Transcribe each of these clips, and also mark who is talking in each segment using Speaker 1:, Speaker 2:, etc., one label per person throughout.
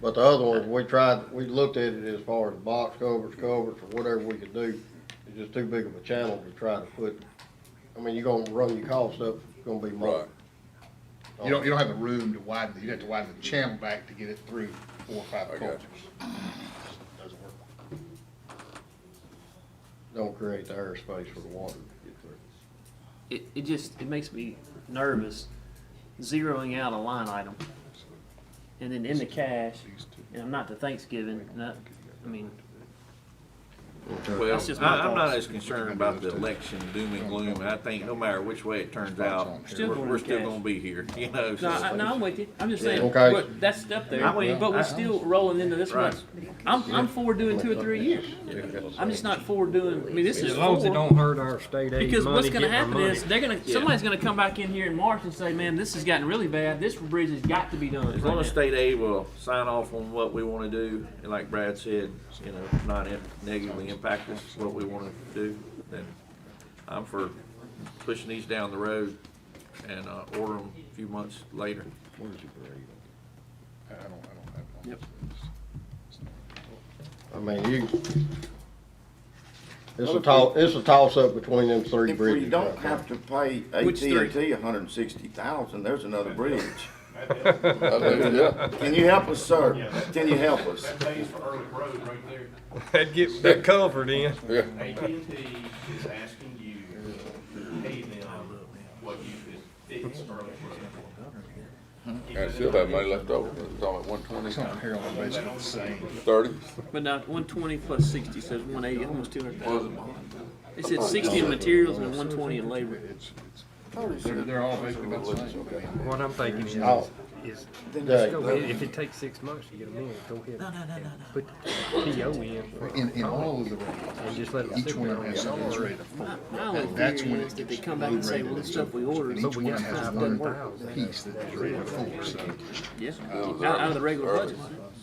Speaker 1: But the other ones, we tried, we looked at it as far as box covers, covers, or whatever we could do. It's just too big of a channel to try to put, I mean, you're gonna run your costs up, it's gonna be more.
Speaker 2: Right.
Speaker 3: You don't, you don't have the room to widen, you'd have to widen the channel back to get it through four or five
Speaker 2: I got you.
Speaker 3: cultures. Doesn't work.
Speaker 1: Don't create the airspace for the water to get through.
Speaker 4: It, it just, it makes me nervous zeroing out a line item and then in the cash, and I'm not to Thanksgiving, and I, I mean,
Speaker 5: Well,
Speaker 4: That's just my
Speaker 5: I- I'm not
Speaker 4: thoughts.
Speaker 5: as concerned about the election doom and gloom. I think no matter which way it turns out,
Speaker 3: Still
Speaker 5: we're,
Speaker 4: gonna
Speaker 5: we're still
Speaker 4: cash.
Speaker 5: gonna be here, you know?
Speaker 4: no,
Speaker 5: so-
Speaker 4: I, no, I'm with you, I'm just saying,
Speaker 1: Okay.
Speaker 4: but that's up there,
Speaker 5: I'm with you.
Speaker 4: but we're still rolling into this
Speaker 5: Right.
Speaker 4: month. I'm, I'm for doing two or three years, I'm just not for doing, I mean, this is
Speaker 6: As long as it
Speaker 4: four.
Speaker 6: don't hurt our state aid
Speaker 4: Because what's
Speaker 6: money
Speaker 4: going to
Speaker 6: getting our
Speaker 4: happen
Speaker 6: money.
Speaker 4: is they're going to
Speaker 5: Yeah.
Speaker 4: somebody's going to come back in here in March and say, "Man, this has gotten really bad. This bridge has got to be done."
Speaker 5: As long as state aid will sign off on what we wanna do, and like Brad said, you know, not im- negatively impact us, what we wanna do, then I'm for pushing these down the road and, uh, order them a few months later.
Speaker 3: I I don't, I don't have. it on
Speaker 4: Yep.
Speaker 3: this.
Speaker 1: I mean, you, it's a toss, it's a toss-up between them three
Speaker 7: If we
Speaker 1: bridges.
Speaker 7: don't
Speaker 1: right
Speaker 7: have
Speaker 1: now.
Speaker 7: to pay
Speaker 4: Which three?
Speaker 7: AT&T a hundred and sixty thousand, there's another bridge.
Speaker 2: I think, yeah.
Speaker 7: Can you help us, sir? Can you help us?
Speaker 8: pays for Early Road right there.
Speaker 6: That'd get that covered in.
Speaker 8: AT&T is asking you to pay them what you could fix Early Road.
Speaker 2: I still have money left over, it's all at one twenty,
Speaker 3: It's on here on the basically the same.
Speaker 2: thirty.
Speaker 4: but now 120 plus 60 says 180, almost 200,000. They said 60 in materials and 120 in labor.
Speaker 3: It's, it's, they're, they're all basically about the same. I mean,
Speaker 6: What I'm thinking is,
Speaker 1: Oh.
Speaker 6: is
Speaker 7: Then
Speaker 1: Yeah.
Speaker 7: just
Speaker 6: go
Speaker 7: go
Speaker 6: ahead,
Speaker 7: ahead.
Speaker 6: if it takes six months to get them in, go ahead and put the PO in.
Speaker 3: In, in all of the roads,
Speaker 6: And just let it
Speaker 3: each
Speaker 6: sit
Speaker 3: one
Speaker 6: there.
Speaker 3: of them has something that's ready to fold.
Speaker 4: My only
Speaker 3: And that's
Speaker 4: theory
Speaker 3: when
Speaker 4: is
Speaker 3: it
Speaker 4: that
Speaker 3: gets
Speaker 4: they come back and say, "Well,
Speaker 3: blue-rated
Speaker 4: this stuff we
Speaker 3: and
Speaker 4: ordered
Speaker 3: Each
Speaker 6: we
Speaker 3: one
Speaker 6: got
Speaker 3: has
Speaker 6: five
Speaker 3: one
Speaker 6: thousand.
Speaker 3: piece that is ready to fold, so.
Speaker 4: Yeah, out, out of the regular budget.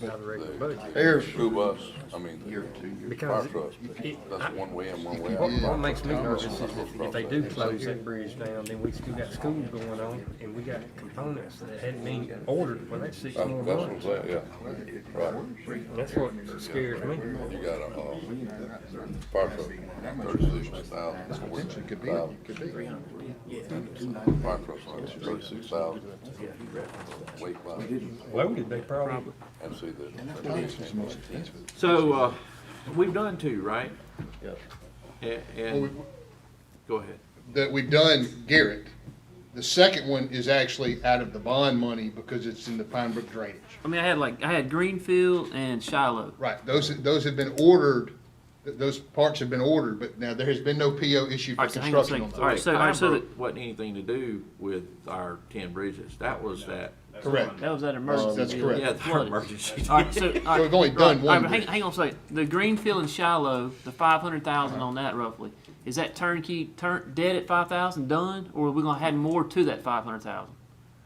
Speaker 6: Out of the regular budget.
Speaker 1: Here's,
Speaker 2: School bus, I mean, fire
Speaker 6: Because it-
Speaker 2: trucks,
Speaker 6: it-
Speaker 2: that's one way in, one way
Speaker 6: What, what
Speaker 2: out.
Speaker 6: makes me nervous is if if they do close that bridge down, then we still got school going on, and we got components that hadn't been ordered for that six
Speaker 2: That's
Speaker 6: more
Speaker 2: that's what I'm
Speaker 6: months.
Speaker 2: saying, yeah, right,
Speaker 6: That's what scares me.
Speaker 2: you got a, uh, fire truck, thirty-six thousand,
Speaker 3: Potentially could
Speaker 2: forty-six
Speaker 3: be, it
Speaker 2: thousand.
Speaker 3: could be.
Speaker 2: Fire trucks, thirty-six thousand, weight line,
Speaker 6: Loaded, they probably.
Speaker 2: and see the,
Speaker 3: This is the most expensive.
Speaker 5: So, uh, we've done two, right?
Speaker 1: yes,
Speaker 5: And,
Speaker 3: Well, we-
Speaker 5: and, go ahead.
Speaker 3: that we've done Garrett. The second one is actually out of the bond money because it's in the Pine Brook drainage.
Speaker 4: I mean, I had like I had Greenfield and Shiloh.
Speaker 3: Right, those, those have been ordered, th- those parts have been ordered, but now there has been no PO issued
Speaker 4: All
Speaker 3: for
Speaker 4: right, so hang on a
Speaker 3: construction on
Speaker 4: second. All
Speaker 3: those.
Speaker 4: right, so, all right, so that,
Speaker 5: Pembroke Wasn't anything to do with our ten bridges. That was that,
Speaker 3: Correct.
Speaker 4: that was that emergency.
Speaker 3: Oh, That's
Speaker 4: deal.
Speaker 3: correct.
Speaker 5: yeah, our
Speaker 4: Flooded.
Speaker 5: emergency.
Speaker 4: All right, so, all right,
Speaker 3: we've only done
Speaker 4: all right,
Speaker 3: one
Speaker 4: but Hang,
Speaker 3: bridge.
Speaker 4: hang on a second. The Greenfield and Shiloh, the five hundred thousand on that roughly, is that turnkey turn dead at five thousand done, or are we gonna add more to that five hundred thousand,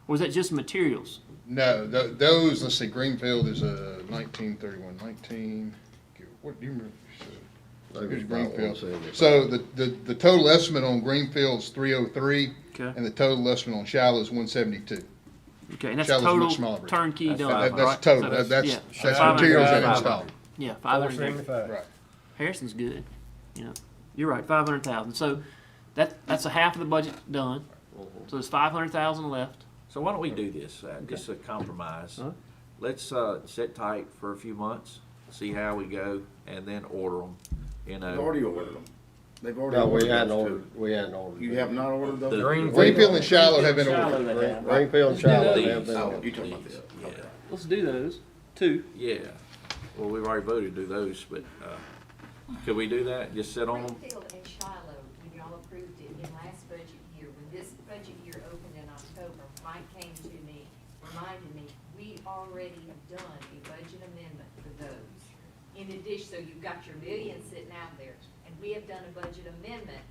Speaker 4: or is that just materials?
Speaker 3: No, tho- those, let's see, Greenfield is a nineteen thirty-one, nineteen, what, do you remember?
Speaker 1: They
Speaker 3: Here's
Speaker 1: was about
Speaker 3: Greenfield.
Speaker 1: 175.
Speaker 3: So the, the, the total estimate on Greenfield's three oh three,
Speaker 4: Okay.
Speaker 3: and the total estimate on Shiloh's one seventy-two.
Speaker 4: Okay, and that's
Speaker 3: Shiloh's a
Speaker 4: total
Speaker 3: much smaller bridge.
Speaker 4: turnkey done.
Speaker 3: That,
Speaker 4: right?
Speaker 3: that's total,
Speaker 4: So
Speaker 3: That- that's,
Speaker 4: yeah,
Speaker 3: that's
Speaker 4: 500,000.
Speaker 3: materials and installed,
Speaker 4: Yeah, five
Speaker 6: Four
Speaker 4: hundred.
Speaker 6: seventy-five.
Speaker 3: right.
Speaker 4: Harrison's good, you know. You're right, five hundred thousand. So that that's a half of the budget done. So there's five hundred thousand left.
Speaker 5: So why don't we do this, uh, just a compromise?
Speaker 4: Huh?
Speaker 5: Let's, uh, sit tight for a few months, see how we go, and then order them, you
Speaker 7: They've
Speaker 5: know.
Speaker 7: already ordered them. They've already
Speaker 1: no, we
Speaker 7: ordered
Speaker 1: hadn't
Speaker 7: those two.
Speaker 1: ordered, we hadn't ordered.
Speaker 7: You have not ordered those?
Speaker 5: The-
Speaker 6: Greenfield.
Speaker 3: Greenfield and Shiloh have been ordered.
Speaker 4: Shiloh they have.
Speaker 1: Greenfield and Shiloh have been
Speaker 7: Oh,
Speaker 1: ordered.
Speaker 7: you talking about this?
Speaker 5: Yeah,
Speaker 4: Let's do those two.
Speaker 5: Yeah, well, we've already voted to do those, but, uh, could we do that, just sit on them?
Speaker 9: Springfield and Shiloh, when y'all approved it in last budget year, when this budget year opened in October, Mike came to me, reminded me, we already have done a budget amendment for those. In addition, so you've got your million sitting out there, and we have done a budget amendment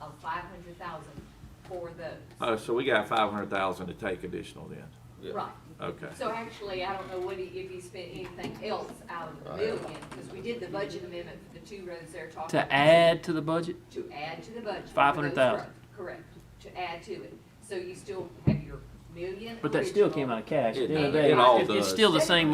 Speaker 9: of five hundred thousand for those.
Speaker 5: Oh, so we got five hundred thousand to take additional then,
Speaker 9: Right.
Speaker 5: okay.
Speaker 9: So actually, I don't know what he, if he spent anything else out of the million, because we did the budget amendment for the two roads they're talking about.
Speaker 4: To add to the budget?
Speaker 9: To add to the budget. for
Speaker 4: 500,000.
Speaker 9: those roads, Correct, to add to it. So you still have your million.
Speaker 4: But that still
Speaker 9: original.
Speaker 4: came out of cash. At the
Speaker 5: It-
Speaker 4: end of the day,
Speaker 5: it all
Speaker 4: it's- it's
Speaker 5: does.
Speaker 4: still the same